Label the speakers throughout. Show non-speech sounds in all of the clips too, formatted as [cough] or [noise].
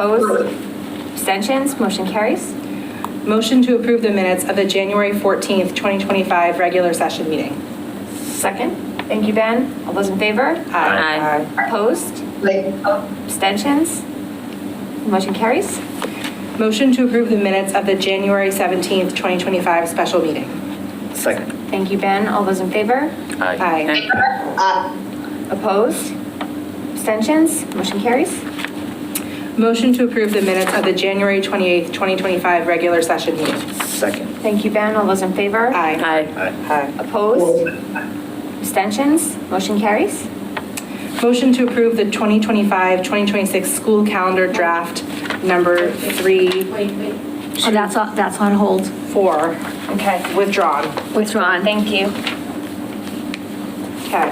Speaker 1: Opposed? Abstentions? Motion carries.
Speaker 2: Motion to approve the minutes of the January 14th, 2025 regular session meeting.
Speaker 1: Second. Thank you, Ben. All those in favor?
Speaker 2: Aye.
Speaker 1: Opposed?
Speaker 3: Like, oh,
Speaker 1: Abstentions? Motion carries.
Speaker 2: Motion to approve the minutes of the January 17th, 2025 special meeting.
Speaker 4: Second.
Speaker 1: Thank you, Ben. All those in favor?
Speaker 2: Aye.
Speaker 3: uh,
Speaker 1: Opposed? Abstentions? Motion carries.
Speaker 2: Motion to approve the minutes of the January 28th, 2025 regular session meeting.
Speaker 4: Second.
Speaker 1: Thank you, Ben. All those in favor?
Speaker 2: Aye.
Speaker 4: Aye.
Speaker 2: Aye.
Speaker 1: Opposed? Abstentions? Motion carries.
Speaker 2: Motion to approve the 2025-2026 school calendar draft number three,
Speaker 5: Wait, wait. Oh, that's, on- that's on hold,
Speaker 2: four,
Speaker 1: Okay.
Speaker 2: withdrawn.
Speaker 5: withdrawn.
Speaker 1: Thank you.
Speaker 2: Okay.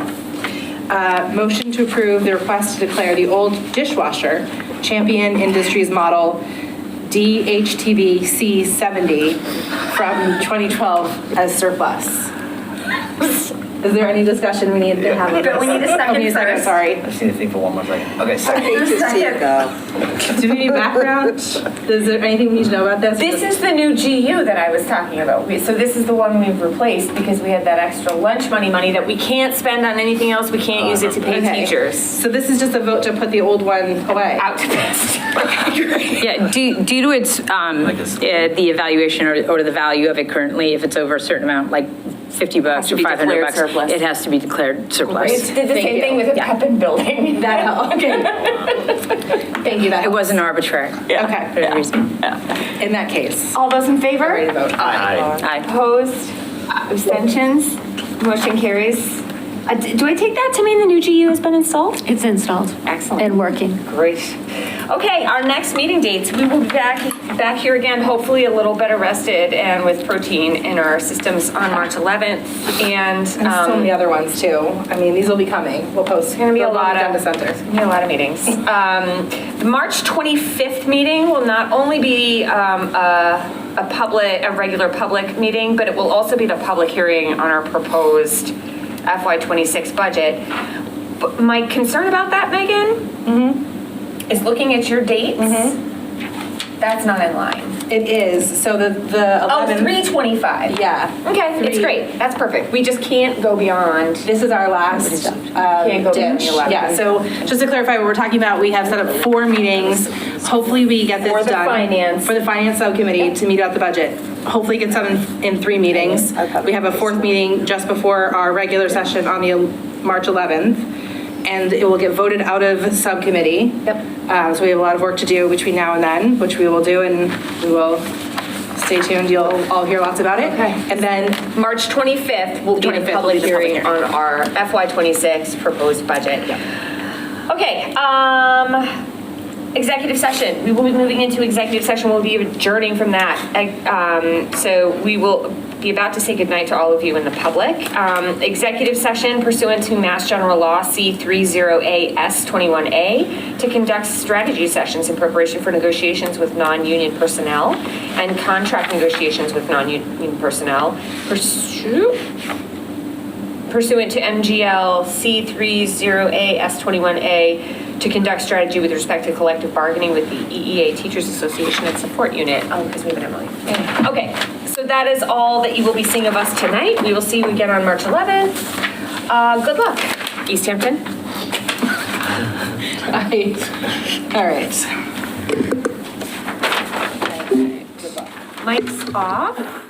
Speaker 2: Uh, Motion to approve the request to declare the old dishwasher Champion Industries Model DHTV C70 from 2012 as surplus. Is there any discussion we need to have?
Speaker 1: We need a
Speaker 2: Oh,
Speaker 1: second
Speaker 2: we need a
Speaker 1: first.
Speaker 2: Sorry.
Speaker 4: I just need to think for one more second. Okay, second.
Speaker 2: [laughs] Do we need background? Is there anything we need to know about this?
Speaker 6: This is the new GU that I was talking about. We- So this is the one we've replaced because we had that extra lunch money money that we can't spend on anything else. We can't use it to pay
Speaker 2: Okay.
Speaker 6: teachers.
Speaker 2: So this is just a vote to put the old one away?
Speaker 6: Out.
Speaker 2: [laughs]
Speaker 7: Yeah, due due to its, um,
Speaker 4: Like it's-
Speaker 7: eh, the evaluation or or the value of it currently, if it's over a certain amount, like 50 bucks
Speaker 6: to
Speaker 7: or
Speaker 6: be
Speaker 7: 500
Speaker 6: declared
Speaker 7: bucks,
Speaker 6: surplus.
Speaker 7: it has to be declared
Speaker 6: It
Speaker 7: surplus.
Speaker 6: did the same thing with the Pepin
Speaker 2: [laughs]
Speaker 6: building. That [laughs] helped.
Speaker 2: Thank you, that
Speaker 7: It wasn't arbitrary.
Speaker 2: Okay,
Speaker 7: For that reason.
Speaker 2: in that case.
Speaker 1: All those in favor?
Speaker 2: Ready to vote?
Speaker 4: Aye.
Speaker 7: Aye.
Speaker 1: Opposed? Abstentions? Motion carries. Uh, d- Do I take that to mean the new GU has been installed?
Speaker 5: It's installed.
Speaker 1: Excellent.
Speaker 5: And working.
Speaker 1: Great. Okay, our next meeting dates, we will be back, back here again, hopefully a little better rested and with protein in our systems on March 11th. And
Speaker 2: And so
Speaker 1: um,
Speaker 2: many other ones too. I mean, these will be coming. We'll post. It's
Speaker 1: gonna be a lot of-
Speaker 2: center.
Speaker 1: We have a lot of meetings. Um, The March 25th meeting will not only be um, a a public, a regular public meeting, but it will also be the public hearing on our proposed FY26 budget. But My concern about that, Megan, is looking at your dates. That's not in line.
Speaker 2: It is. So the the
Speaker 1: Oh,
Speaker 2: eleven.
Speaker 1: 325.
Speaker 2: Yeah.
Speaker 1: Okay, it's
Speaker 2: Three.
Speaker 1: great. That's perfect. We just can't go beyond.
Speaker 2: This is our last
Speaker 1: Can't go
Speaker 2: um,
Speaker 1: beyond
Speaker 2: ditch.
Speaker 1: the 11.
Speaker 2: Yeah. So just to clarify, what we're talking about, we have set up four meetings. Hopefully, we get this
Speaker 1: For the
Speaker 2: done
Speaker 1: finance.
Speaker 2: for the finance subcommittee to meet out the budget. Hopefully, it gets done in, in three meetings. We have a fourth meeting just before our regular session on the el- March 11th. And it will get voted out of subcommittee.
Speaker 1: Yep.
Speaker 2: Uh, so we have a lot of work to do between now and then, which we will do, and we will stay tuned. You'll all hear lots about it.
Speaker 1: Okay.
Speaker 2: And then
Speaker 1: March 25th will be
Speaker 2: 25th
Speaker 1: the
Speaker 2: will be
Speaker 1: public
Speaker 2: the public
Speaker 1: hearing on our FY26 proposed budget. Okay, um, executive session. We will be moving into executive session. We'll be adjourning from that. I- Um, so we will be about to say goodnight to all of you in the public. Um, executive session pursuant to Mass General Law C30AS21A to conduct strategy sessions in preparation for negotiations with non-union personnel and contract negotiations with non-union personnel Pursue pursuant to MGL C30A S21A to conduct strategy with respect to collective bargaining with the EEA Teachers Association and Support Unit. Oh, because we have an Emily. Okay, so that is all that you will be seeing of us tonight. We will see you again on March 11th. Uh, Good luck, East Hampton.
Speaker 2: I, all right.
Speaker 1: Mike's off.